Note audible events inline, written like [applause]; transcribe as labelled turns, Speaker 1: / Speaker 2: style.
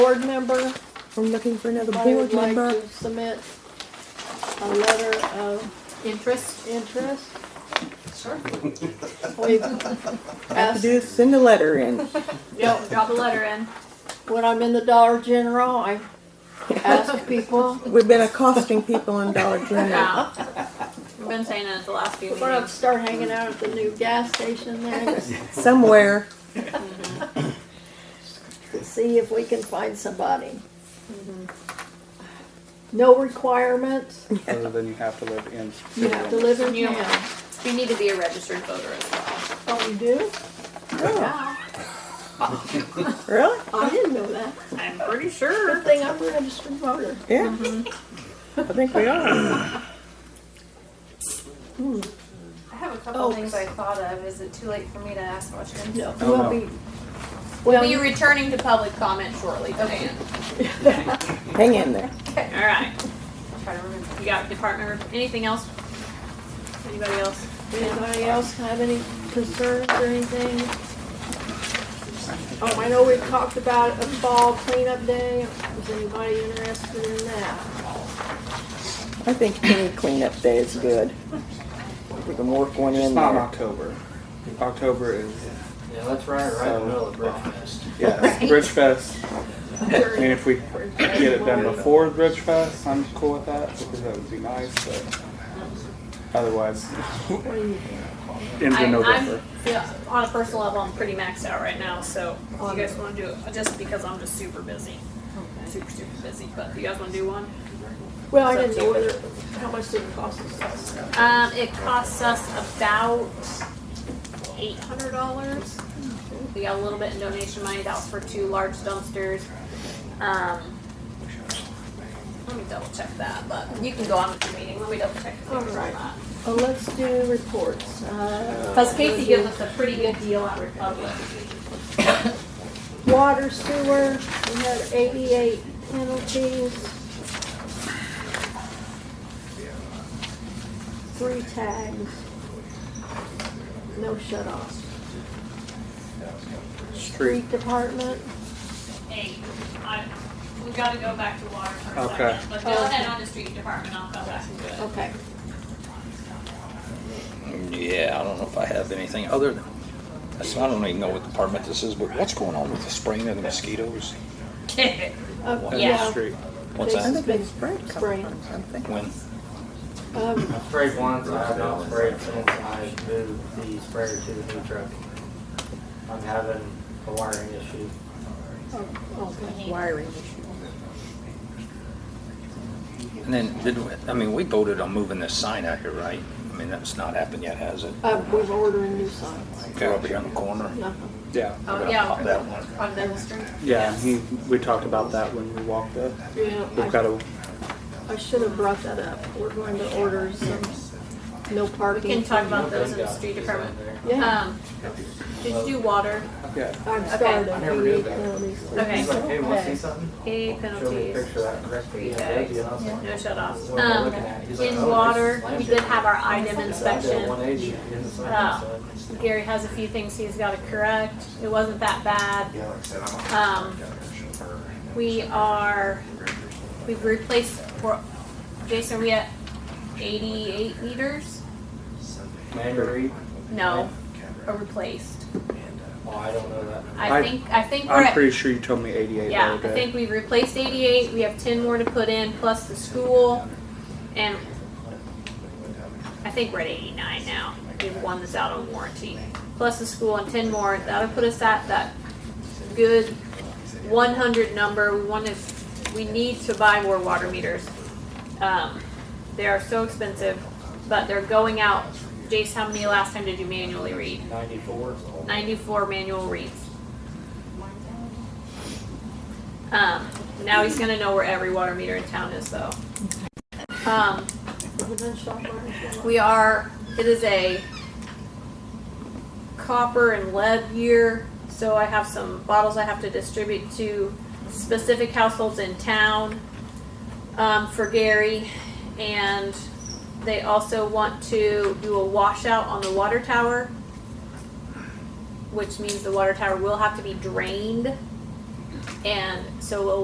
Speaker 1: board member,
Speaker 2: I'm looking for another
Speaker 1: I would
Speaker 2: board
Speaker 1: like
Speaker 2: member.
Speaker 1: to submit a letter of
Speaker 3: Interest?
Speaker 1: interest.
Speaker 3: Sure.
Speaker 1: We've
Speaker 2: Have to
Speaker 1: asked,
Speaker 2: do is send a letter in.
Speaker 3: Yep, drop a letter in.
Speaker 1: when I'm in the Dollar General, I ask people,
Speaker 2: We've been accosting people in Dollar General.
Speaker 3: Yeah. [laughs] We've been saying it the last few
Speaker 1: we're gonna
Speaker 3: meetings.
Speaker 1: start hanging out at the new gas station there,
Speaker 2: Somewhere,
Speaker 1: to see if we can find somebody. No requirements,
Speaker 4: other than you have to live in.
Speaker 1: you have to live in
Speaker 3: You don't
Speaker 1: town.
Speaker 3: You need to be a registered voter as well.
Speaker 1: Oh, you do?
Speaker 3: Yeah.
Speaker 2: [laughs] really?
Speaker 1: I didn't know that.
Speaker 3: I'm pretty
Speaker 1: Good
Speaker 3: sure.
Speaker 1: thing I'm a registered voter.
Speaker 2: Yeah.
Speaker 1: Mm-hmm.
Speaker 2: I think we are.
Speaker 5: I have a couple
Speaker 1: Oh.
Speaker 5: things I thought of. Is it too late for me to ask questions?
Speaker 1: No,
Speaker 4: Oh,
Speaker 1: we'll
Speaker 4: no.
Speaker 1: be,
Speaker 3: We'll
Speaker 1: well,
Speaker 3: be returning to public comment shortly,
Speaker 5: Okay.
Speaker 3: Dan.
Speaker 2: Hang in there.
Speaker 3: All right.
Speaker 5: Try to remember.
Speaker 3: You got department, rep- anything else? Anybody else?
Speaker 1: Anybody else have any concerns or anything? Um, I know we've talked about a fall cleanup day. Is anybody interested in [laughs] that?
Speaker 2: I think any cleanup day is good. We can work one
Speaker 4: It's
Speaker 2: in
Speaker 4: not in
Speaker 2: there.
Speaker 4: October. October [laughs] is,
Speaker 6: Yeah, that's right, right in the middle of breakfast.
Speaker 4: yeah, it's Bridge Fest. I mean, if we get it done before Bridge Fest, I'm cool with that, because that would be nice, but otherwise, [laughs]
Speaker 1: What do you think?
Speaker 4: ends in
Speaker 3: I'm-
Speaker 4: November.
Speaker 3: I'm, yeah, on a personal level, I'm pretty maxed out right now, so if you guys wanna do it, just because I'm just super busy. Super, super busy, but if you guys wanna do one?
Speaker 1: Well, I didn't know whether, how much did it cost us?
Speaker 3: Um, it costs us about eight hundred dollars. We got a little bit in donation money, that was for two large dumpsters. Um, let me double check that, but you can go on with the meeting, let me double check. the numbers on
Speaker 1: Alright.
Speaker 3: that.
Speaker 1: Oh, let's do reports. Uh,
Speaker 3: Cause Casey gives us a pretty good deal at Republic.
Speaker 1: Water sewer, we had eighty-eight penalties. Three tags. No shut offs. Street department,
Speaker 3: Hey, I, we gotta go back to water for a
Speaker 4: Okay.
Speaker 3: second, but go ahead on the street department, I'll come back to [laughs] it.
Speaker 1: okay.
Speaker 7: Yeah, I don't know if I have anything other than, I said, I don't even know what department this is, but what's going on with the spraying of the mosquitoes?
Speaker 1: Uh,
Speaker 7: Water
Speaker 1: yeah,
Speaker 4: Street.
Speaker 7: What's
Speaker 2: I
Speaker 7: that?
Speaker 2: think they sprayed a couple
Speaker 1: Spray.
Speaker 2: times, don't they?
Speaker 7: When?
Speaker 1: um,
Speaker 6: I sprayed once, I have not sprayed since I moved the sprayer to the new truck. I'm having a wiring issue.
Speaker 1: oh, okay.
Speaker 2: Wiring issue.
Speaker 7: And then, did, we- I mean, we voted on moving this sign out here, right? I mean, that's not happened yet, has it?
Speaker 1: Uh, we're ordering new signs.
Speaker 7: They're over here on the corner.
Speaker 1: Uh-huh.
Speaker 4: Yeah,
Speaker 7: We're gonna
Speaker 3: Oh, yeah.
Speaker 7: pop that one.
Speaker 3: On Devil Street?
Speaker 4: yeah, he, we talked about that when we walked up. We've
Speaker 1: Yeah,
Speaker 4: got a,
Speaker 1: I, I should have brought that up. We're going to order some, no
Speaker 3: We
Speaker 1: parking.
Speaker 3: can talk about
Speaker 6: Nothing
Speaker 3: those in the
Speaker 6: got
Speaker 3: street
Speaker 6: this
Speaker 3: department.
Speaker 6: in there.
Speaker 1: Yeah.
Speaker 3: Um, did you do water?
Speaker 4: yeah,
Speaker 1: I've
Speaker 3: Okay.
Speaker 1: started.
Speaker 6: I never knew
Speaker 1: We
Speaker 6: that.
Speaker 1: emailed these
Speaker 3: Okay.
Speaker 6: He's like, hey, wanna
Speaker 1: Okay.
Speaker 6: see something?
Speaker 3: Hey,
Speaker 6: Show me a
Speaker 3: penalties,
Speaker 6: picture of that correctly.
Speaker 3: Three
Speaker 6: Yeah, baby. And I was like,
Speaker 3: no shut offs.
Speaker 6: what am I
Speaker 3: Um,
Speaker 6: looking at? He's like,
Speaker 3: in
Speaker 6: "Oh, it's
Speaker 3: water,
Speaker 6: slammed
Speaker 3: we
Speaker 6: here."
Speaker 3: did have our item
Speaker 6: So I did a
Speaker 3: inspection.
Speaker 6: 180 in the sun,
Speaker 3: Uh,
Speaker 6: so-
Speaker 3: Gary has a few things he's gotta correct. It wasn't that bad.
Speaker 8: Yeah, like I said, I'm.
Speaker 3: Um, we are, we've replaced, for- Jason, we at eighty-eight meters?
Speaker 6: Mandarin.
Speaker 3: No, are replaced.
Speaker 6: Oh, I don't know that.
Speaker 3: I
Speaker 4: I-
Speaker 3: think, I think we're
Speaker 4: I'm
Speaker 3: at,
Speaker 4: pretty sure you told me eighty-eight the
Speaker 3: yeah,
Speaker 4: other
Speaker 3: I
Speaker 4: day.
Speaker 3: think we've replaced eighty-eight, we have ten more to put in, plus the school. And I think we're at eighty-nine now, we've won this out on warranty. Plus the school and ten more, that'll put us at that good one hundred number, we wanna, we need to buy more water meters. Um, they are so expensive, but they're going out, Jace, how many last time did you manually read?
Speaker 6: Ninety-four.
Speaker 3: Ninety-four manual reads. Um, now he's gonna know where every water meter in town is though. Um, we are, it is a copper and lead year, so I have some bottles I have to distribute to specific households in town um, for Gary. And they also want to do a washout on the water tower, which means the water tower will have to be drained. And so we'll